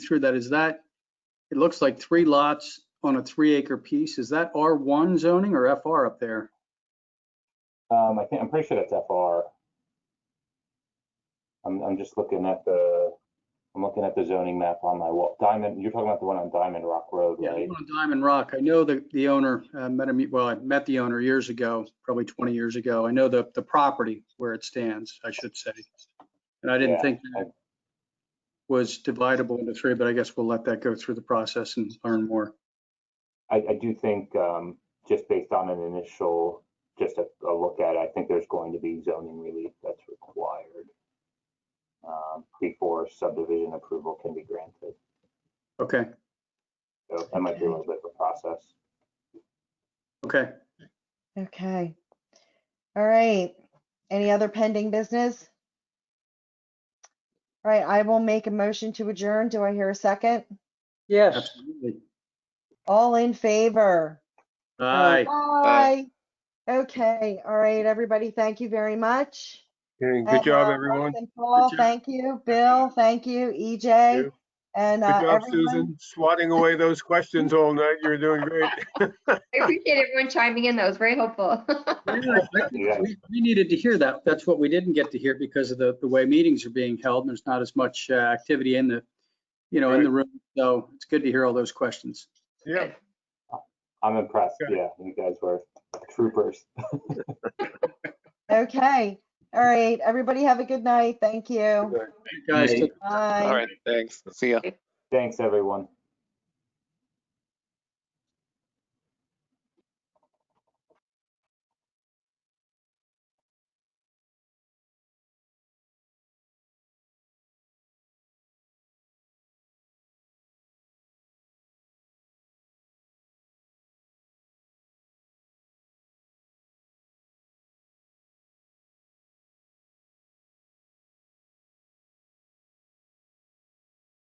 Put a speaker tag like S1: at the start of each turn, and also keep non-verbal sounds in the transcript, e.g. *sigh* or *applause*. S1: through that, is that, it looks like three lots on a three acre piece. Is that R1 zoning or FR up there?
S2: Um, I think, I'm pretty sure that's FR. I'm, I'm just looking at the, I'm looking at the zoning map on my wall. Diamond, you're talking about the one on Diamond Rock Road,
S1: Yeah,
S2: right?
S1: I'm on Diamond Rock. I know the, the owner, uh, met him, well, I met the owner years ago, probably 20 years ago. I know the, the property where it stands, I should say. And I didn't
S2: Yeah,
S1: think that was dividable into three, but I guess we'll let that go through the process and learn more.
S2: I, I do think, um, just based on an initial, just a, a look at it, I think there's going to be zoning relief that's required. Um, before subdivision approval can be granted.
S1: Okay,
S2: So that might be a little bit of a process.
S1: okay.
S3: Okay. All right. Any other pending business? All right, I will make a motion to adjourn. Do I hear a second?
S4: Yes.
S1: Absolutely.
S3: All in favor?
S1: Aye.
S3: Aye. Okay, all right, everybody, thank you very much.
S4: Okay,
S3: And,
S4: Good job,
S3: uh,
S4: everyone.
S3: Russ and Paul,
S1: job.
S3: thank you. Bill, thank you. EJ.
S4: you.
S3: And uh,
S4: Good job,
S3: everyone,
S4: Susan, swatting away those questions all night. You're
S3: *laughs*
S4: doing great.
S5: I appreciate everyone chiming in. That was very helpful.
S1: Yeah, I think We we needed to hear that. That's what we didn't get to hear because of the, the way meetings are being held. There's not as much uh, activity in the, you know, in the room. So it's good to hear all those questions.
S4: Yeah,
S2: I'm impressed.
S4: Okay.
S2: Yeah, you guys were troopers.
S3: okay. All right, everybody have a good night. Thank you.
S1: Guys,
S2: Hey.
S1: take
S3: Bye.
S6: All right, thanks. See ya.
S2: Thanks, everyone.